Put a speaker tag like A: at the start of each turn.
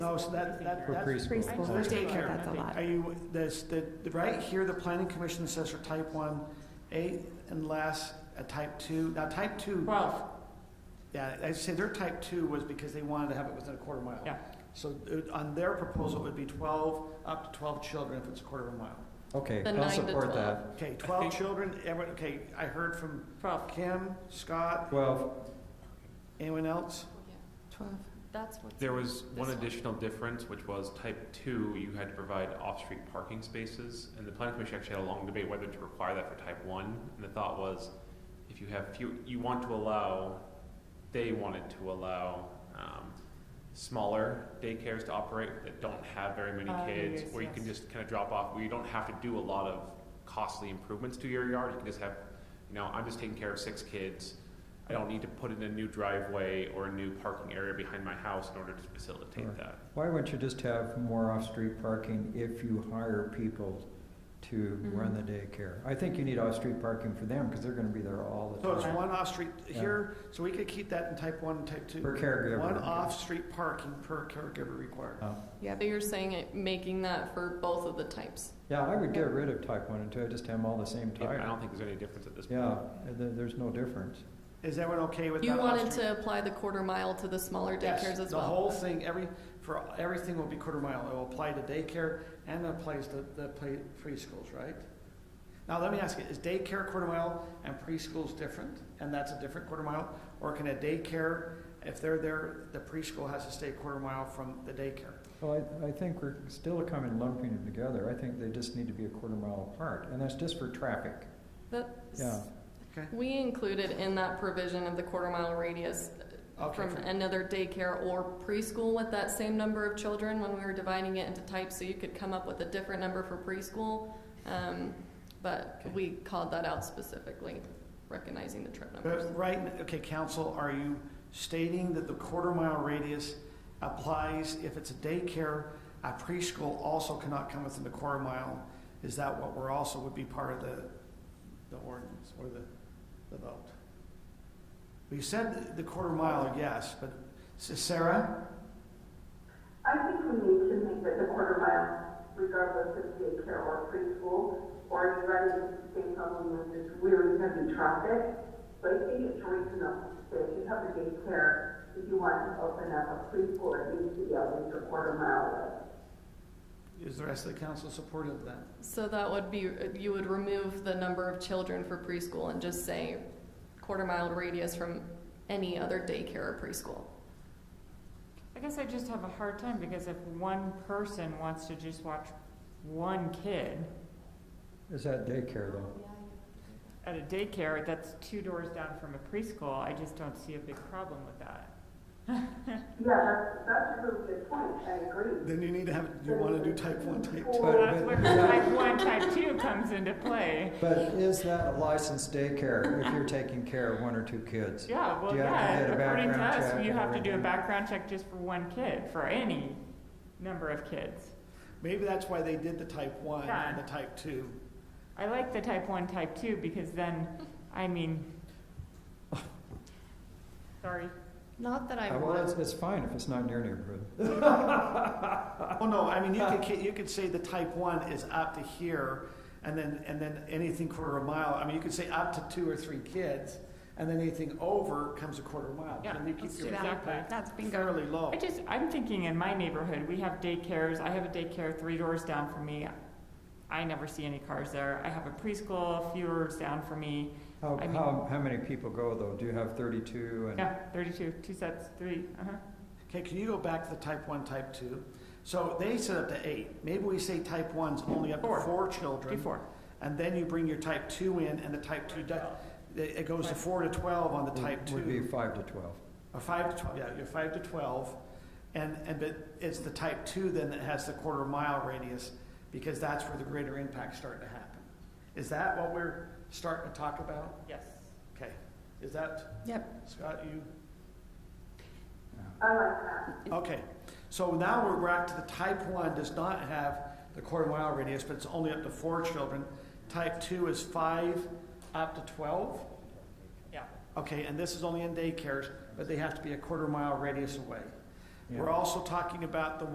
A: so that, that,
B: For
A: that's.
B: preschool.
A: so
C: Preschool,
A: that's
C: yeah,
A: daycare.
C: that's a lot.
A: Are you, this, the, the- right here, the planning commission says for type one, eight unless a type two, now type two.
D: Twelve,
A: Yeah, I say their type two was because they wanted to have it within a quarter mile.
D: yeah.
A: So it- on their proposal, it would be twelve, up to twelve children if it's a quarter of a mile.
B: Okay,
D: The
B: I'll
D: nine to
B: support
D: 12.
B: that.
A: Okay, twelve children, everyone, okay, I heard from
D: Twelve.
A: Kim, Scott,
B: Twelve,
A: anyone else?
C: Twelve.
D: That's what.
E: There was one
D: This one.
E: additional difference, which was type two, you had to provide off-street parking spaces, and the planning commission actually had a long debate whether to require that for type one, and the thought was, if you have few, you want to allow, they wanted to allow, um, smaller daycares to operate that don't have very many
D: Ah,
E: kids,
D: yes,
E: where you can
D: yes.
E: just kind of drop off, where you don't have to do a lot of costly improvements to your yard, you can just have, you know, I'm just taking care of six kids, I don't need to put in a new driveway or a new parking area behind my house in order to facilitate
B: Right.
E: that.
B: why wouldn't you just have more off-street parking if you hire people to
D: Mm-hmm.
B: run the daycare? I think you need off-street parking for them, because they're gonna be there all the
A: So it's
B: time.
A: one off-street here, so we could keep that in type one and type two.
B: Per caregiver.
A: One off-street parking per caregiver required.
B: Uh,
C: Yep.
F: So you're saying it, making that for both of the types?
B: Yeah, I would get rid of type one and two, just have them all the same
E: Yeah, I
B: type.
E: don't think there's any difference at this point.
B: Yeah, there, there's no difference.
A: Is everyone okay with that?
F: You wanted
A: off-street?
F: to apply the quarter mile to the smaller
A: Yes,
F: daycares as
A: The whole
F: well?
A: thing, every, for, everything will be quarter mile. It will apply to daycare and it applies to the play- preschools, right? Now, let me ask you, is daycare quarter mile and preschools different? And that's a different quarter mile? Or can a daycare, if they're there, the preschool has to stay a quarter mile from the daycare?
B: Well, I, I think we're still kind of lumping them together. I think they just need to be a quarter mile apart, and that's just for traffic.
F: That's-
B: Yeah.
A: Okay?
F: We included in that provision of the quarter mile radius uh,
A: Okay,
F: from
A: from-
F: another daycare or preschool with that same number of children when we were dividing it into types, so you could come up with a different number for preschool. Um, But we called that out specifically, recognizing the trip numbers.
A: But Uh, right, okay, council, are you stating that the quarter mile radius applies if it's a daycare, a preschool also cannot come within the quarter mile? Is that what we're also, would be part of the, the ordinance or the, the vote? We said the quarter mile, yes, but S- Sarah,
G: I think we need to make it the quarter mile regardless of daycare or preschool, or if you're running the same problem with this really heavy traffic. But I think it's reasonable that if you have a daycare, if you want to open up a preschool, it needs to be at least a quarter mile away.
A: is the rest of the council supportive of that?
F: So that would be, you would remove the number of children for preschool and just say quarter mile radius from any other daycare or preschool.
D: I guess I just have a hard time because if one person wants to just watch one kid
B: Is that daycare though?
D: at a daycare that's two doors down from a preschool, I just don't see a big problem with that.
G: Yeah, that's, that's a really good point, I agree.
A: Then you need to have, you wanna do type one, type two?
B: But-
D: Well, that's
B: but-
D: where type one, type two comes into play.
B: But is that a licensed daycare if you're taking care of one or two kids?
D: Yeah, well,
B: Do you have to
D: yeah,
B: get a
D: according to
B: background
D: us,
B: check
D: you
B: and
D: have to do a
B: everything?
D: background check just for one kid, for any number of kids.
A: Maybe that's why they did the type one and
D: Yeah.
A: the type two.
D: I like the type one, type two, because then, I mean, sorry.
F: Not that I
B: Uh, Well, it's,
F: want,
B: it's fine if it's not in your neighborhood.
A: Oh, no, I mean, you could, ki- you could say the type one is up to here, and then, and then anything quarter of a mile, I mean, you could say up to two or three kids, and then anything over comes a quarter mile.
D: Yeah,
A: And you
D: let's
A: keep
D: do
A: your
D: that.
A: exactly
C: That's bingo.
A: fairly low.
D: I just, I'm thinking in my neighborhood, we have daycares, I have a daycare three doors down from me. I never see any cars there. I have a preschool a few doors down from me.
B: How,
D: I mean-
B: how, how many people go though? Do you have thirty-two and?
D: Yeah, thirty-two, two sets, three, uh-huh.
A: Okay, can you go back to the type one, type two? So they said up to eight, maybe we say type one's only up to
D: Four.
A: four children.
D: Do four.
A: And then you bring your type two in, and the type two, does- it it goes to four to twelve on the type two.
B: Would be five to twelve.
A: Or five to twelve, yeah, you're five to twelve, and, and but it's the type two then that has the quarter mile radius, because that's where the greater impact's starting to happen. Is that what we're starting to talk about?
D: Yes.
A: Okay, is that,
C: Yep.
A: Scott, you,
G: I like that.
A: okay. So now we're back to the type one does not have the quarter mile radius, but it's only up to four children. Type two is five up to twelve?
D: Yeah.
A: Okay, and this is only in daycares, but they have to be a quarter mile radius away.
B: Yeah.
A: We're also talking about the